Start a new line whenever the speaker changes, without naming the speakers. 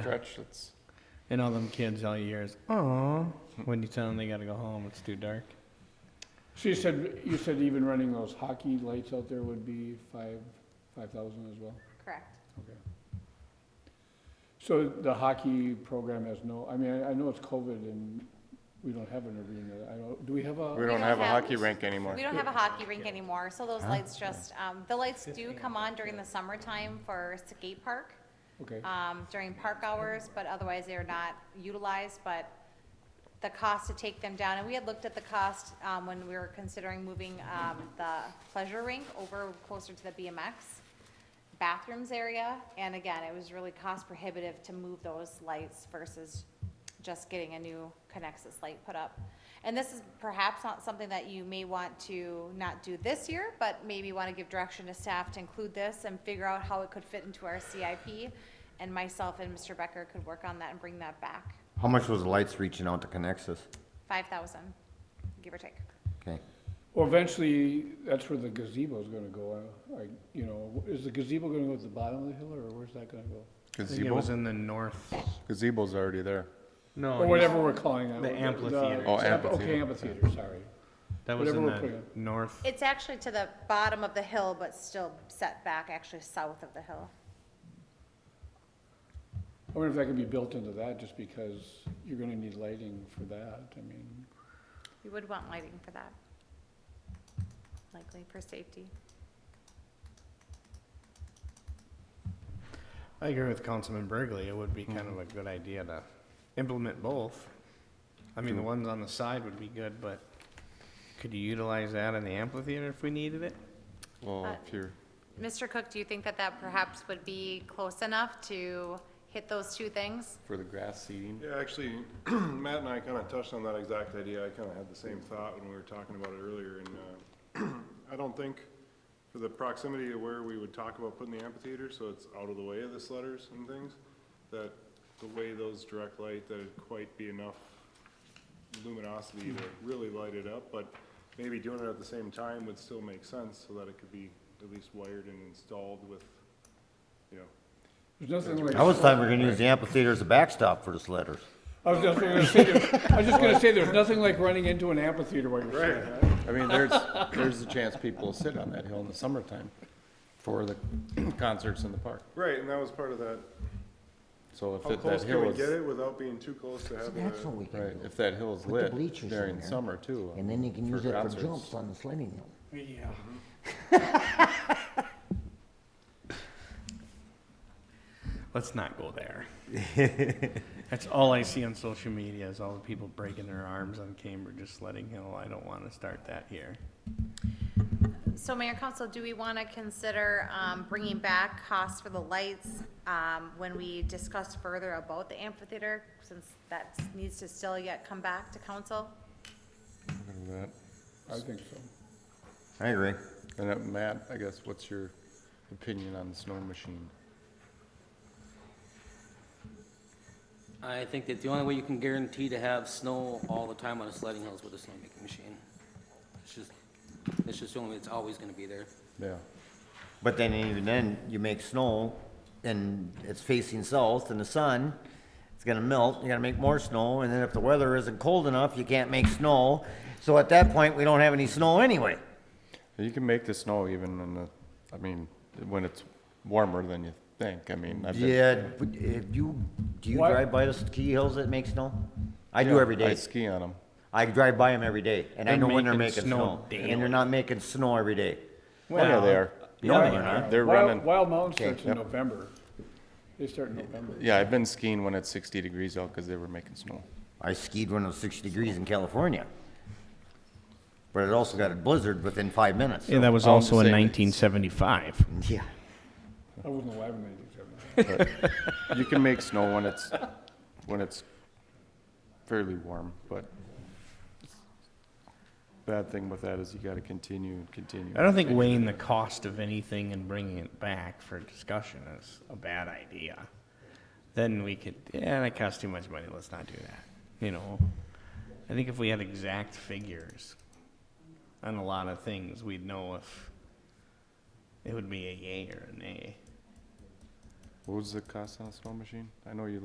stretch that's
And all them kids all year is, aw, when you tell them they gotta go home, it's too dark.
So you said, you said even running those hockey lights out there would be five, five thousand as well?
Correct.
Okay. So the hockey program has no, I mean, I, I know it's COVID and we don't have an arena, I don't, do we have
we
a?
don't
don't
have a
have-
hockey rink anymore.
We don't have a hockey rink anymore, so those lights just, um, the lights do come on during the summertime for skate park,
Okay,
um, during park hours, but otherwise they are not utilized, but the cost to take them down, and we had looked at the cost, um, when we were considering moving, um, the pleasure rink over closer to the BMX bathrooms area, and again, it was really cost prohibitive to move those lights versus just getting a new Connexus light put up. And this is perhaps not something that you may want to not do this year, but maybe want to give direction to staff to include this and figure out how it could fit into our CIP. And myself and Mr. Becker could work on that and bring that back.
How much was the lights reaching out to Conexus?
Five thousand, give or take.
Okay.
well, eventually, that's where the gazebo's gonna go, I, I, you know, is the gazebo gonna go at the bottom of the hill, or where's that gonna go?
I think it was
Gazebo,
in the north.
gazebo's already there.
No,
Or
whatever.
whatever we're calling it.
Oh, The amphitheater.
Oh,
amp- Okay,
amphitheater.
amphitheater, sorry.
that was in
whatever we're
the north.
It's actually to the bottom of the hill, but still set back actually south of the hill.
I wonder if that could be built into that, just because you're gonna need lighting for that, I mean,
You would want lighting for that, likely for safety.
I agree with Councilman Burgley. It would be kind of a good idea to implement both. I mean, the ones on the side would be good, but could you utilize that in the amphitheater if we needed it?
Well,
Uh,
if you're,
Mr. Cook, do you think that that perhaps would be close enough to hit those two things?
for the grass seeding,
Yeah, actually, Matt and I kind of touched on that exact idea. I kind of had the same thought when we were talking about it earlier, and uh, I don't think for the proximity to where we would talk about putting the amphitheater, so it's out of the way of the sledders and things, that the way those direct light, that'd quite be enough luminosity to really light it up, but maybe doing it at the same time would still make sense, so that it could be at least wired and installed with, you know,
there's nothing like.
I was thought we were gonna use the amphitheater as a backstop for the sledders.
I was just gonna say, there- I was just gonna say, there's nothing like running into an amphitheater while you're sitting.
I mean, there's, there's a chance people will sit on that hill in the summertime for the concerts in the park.
right, and that was part of that
So if
How
it- that
close
hill
can we get
is,
it without being too close to having
That's what
a,
we
right,
can do.
if that hill is
Put the
lit
bleachers in
during
there,
summer too.
And then you can
for
use it for
concerts.
jumps on the sledding hill.
Yeah.
Let's not go there. That's all I see on social media is all the people breaking their arms on Cambridge, just letting hill. I don't want to start that here.
So Mayor Council, do we want to consider um, bringing back costs for the lights um, when we discuss further about the amphitheater? Since that needs to still yet come back to council?
I think so.
I agree.
And uh, Matt, I guess, what's your opinion on the snow machine?
I think that the only way you can guarantee to have snow all the time on a sledding hill is with a snowmaking machine. It's just, it's just the only, it's always gonna be there.
Yeah,
But then even then, you make snow and it's facing south and the sun, it's gonna melt, you gotta make more snow, and then if the weather isn't cold enough, you can't make snow. So at that point, we don't have any snow anyway.
you can make the snow even in the, I mean, when it's warmer than you think, I mean. I've been-
Yeah, but if you, do you
What?
drive by the ski hills that make snow? I do
Yeah,
every
I
day.
ski on them.
I drive by them every day, and I
They're
know when they're
making
making
snow
snow, and they're not making snow every day.
Well, yeah, they are.
No, they're not.
They're
Wild-
running.
Wild Mountain starts in
yep.
November. They start in November.
Yeah, I've been skiing when it's 60 degrees out because they were making snow.
I skied when it was sixty degrees in California. But it also got a blizzard within five minutes.
Yeah, that was
all I'm
also in
saying is-
1975.
Yeah.
I wasn't alive in ninety-seven.
But you can make snow when it's when it's fairly warm, but bad thing with that is you got to continue and continue.
I don't think weighing the cost of anything and bringing it back for discussion is a bad idea. Then we could, yeah, that costs too much money, let's not do that, you know? I think if we had exact figures on a lot of things, we'd know if it would be a yay or a nay.
What was the cost on a snow machine? I know you